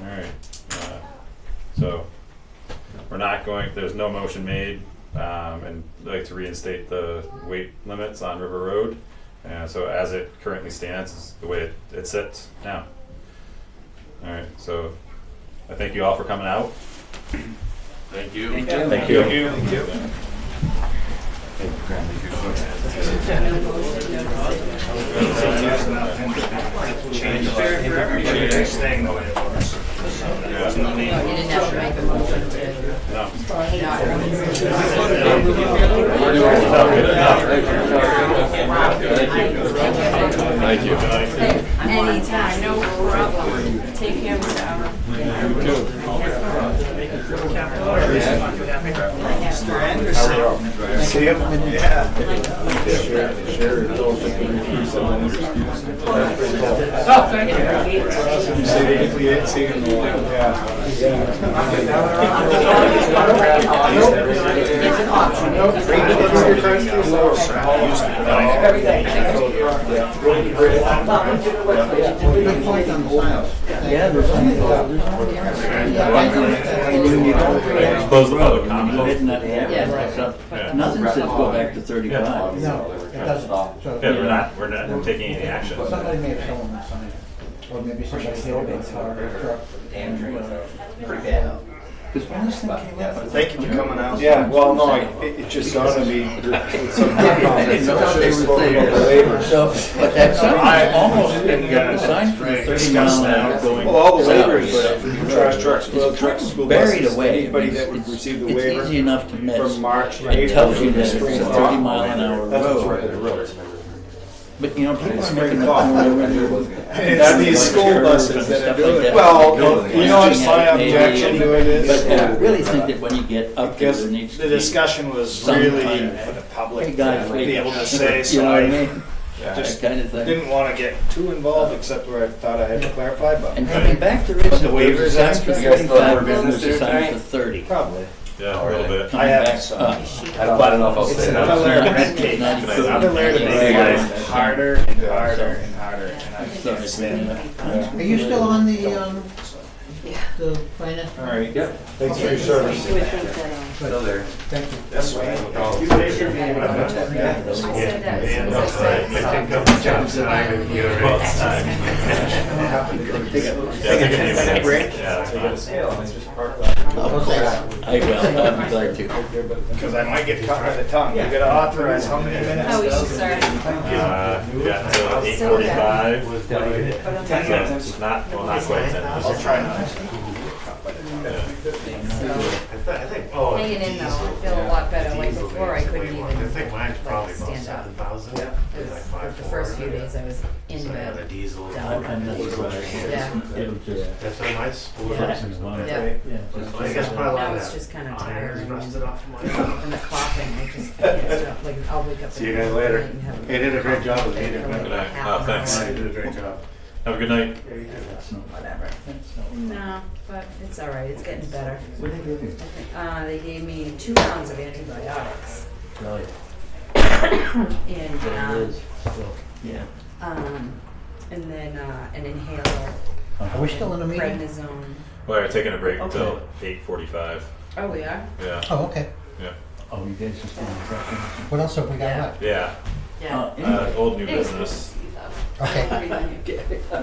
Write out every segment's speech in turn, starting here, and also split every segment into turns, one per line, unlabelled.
Alright, uh, so, we're not going, there's no motion made, um, and I'd like to reinstate the weight limits on River Road. And so as it currently stands, is the way it, it sits now. Alright, so, I thank you all for coming out.
Thank you.
Thank
you. Thank you.
Change their, for everybody, staying the way it was.
Yeah.
Oh, You didn't have to make a motion to
No.
hang out.
No, good enough.
Thank you.
Tonight.
Anytime, no problem. Take him whatever.
Mr. Anderson. See him? Yeah.
Oh, thank you. It's an option.
Close the public comment. Yeah.
Yeah.
Nothing says go back to thirty-five.
No, it doesn't. So-
Yeah, we're not, we're not taking any action.
Somebody may have stolen that sign, or maybe somebody held it, or a truck. uh,
Because when this thing came up.
Thank you for coming out.
Yeah, well, no, I- it, it just dawned on me. with some of the
I didn't
comments,
know
I
they
should've
were
spoken
there.
about the waivers.
So, but that sign
I
was almost,
didn't
didn't get a
know.
sign for the thirty
Discuss
mile an hour
that.
going.
Well, all the
south.
waivers, trash trucks, well, trucks, school
Buried
buses,
away.
anybody
I mean,
that would
it's-
receive the
It's easy
waiver
enough to miss.
from March, to
It
April.
tells you
to
that it's a
spring thaw.
thirty mile an hour
That's what's
road,
right, the roads.
but you know, people are
Spring
making
thaw.
up.
It's these school buses that are doing it. Well, you know, it's my objection to it
But uh, I
is,
really think that when you get up there,
Because
there needs to
the
be.
discussion was
some
really
kind of-
for the
Hey
public
guys,
to
wait.
be able to say,
You
so
know what I
I
mean? That
just
kind of thing.
didn't want to get too involved, except where I thought I had to clarify,
And
but
coming back to Richmond,
the
there's
waivers
a sign for
aspect,
you guys thought
thirty-five,
we were business
there's a sign
tonight?
for thirty.
probably.
Yeah, a little bit.
Coming
have
back
some.
up.
It's another layer of red tape,
Not
It's
included.
another layer to make
Yeah.
life harder and harder and harder, and I
So
can't
it's
stand
been-
that.
Are you still on the, um, the finance?
All right.
thanks for your service.
Thank you.
This way.
Oh.
You
said that.
Yeah,
as
no,
soon as I
I- I
said
think
it.
of jobs that I'm in here. Well, it's time. Yeah, take a few minutes. Yeah, that's nice.
Of course, I will, I'm glad to.
Because I might get caught by the tongue. You gotta authorize how many minutes?
Oh, we should
though?
start.
Uh, yeah, so eight forty-five. So not, well, not quite ten.
I'll try not to.
Hanging in though, I feel a lot better. Like before, I couldn't even like stand up. It was- The first few days I was in bed.
I'm kind of just glad.
Yeah.
It'll just-
That's a nice four
Yeah.
versus one.
Yeah.
yeah,
I guess
just-
probably a lot
Now
of
it's
that
just kinda
iron
tired.
is rusted off my.
And the coughing, I just can't stop. Like I'll wake up.
See you
in
guys
the
later.
morning and have
They did a great job with me, didn't they?
Like
Good night.
half
Oh,
an
thanks.
hour.
You did a great job.
Have a good night.
that's not- that's not-
No, but it's all right. It's getting better.
What did they do?
Uh, they gave me two pounds of antibiotics
Really?
and
It
um,
is, so, Yeah.
um, and then uh, an inhaler,
Are we still in a meeting?
prednisone.
Well, we're taking a break until
Okay.
eight forty-five.
Oh, we are.
Yeah,
Oh, okay.
Oh, you guys just didn't drop
What else have we got
Yeah.
left?
yeah.
in.
Yeah.
Uh,
Uh,
anyway,
old new
It was good to
business.
see you,
Okay,
though.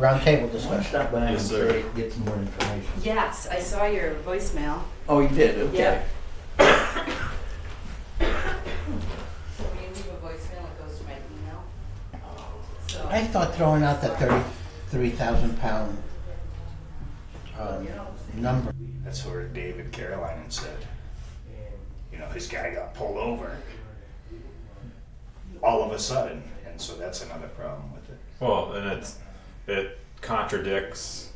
roundtable
I want to
discussion.
stop by and
Yes, sir.
get- get some more information.
yes, I saw your voicemail.
Oh, you did,
Yeah.
okay.
So when you leave a voicemail, it goes to my email. So
I thought throwing out that thirty-three thousand pound, um, number.
That's where David Caroline said, you know, his guy got pulled over all of a sudden. And so that's another problem with it.
Well, and it's, it contradicts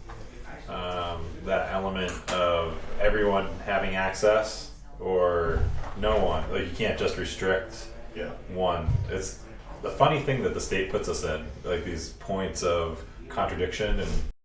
um, that element of everyone having access or no one. Like you can't just restrict
Yeah.
one. It's the funny thing that the state puts us in, like these points of contradiction and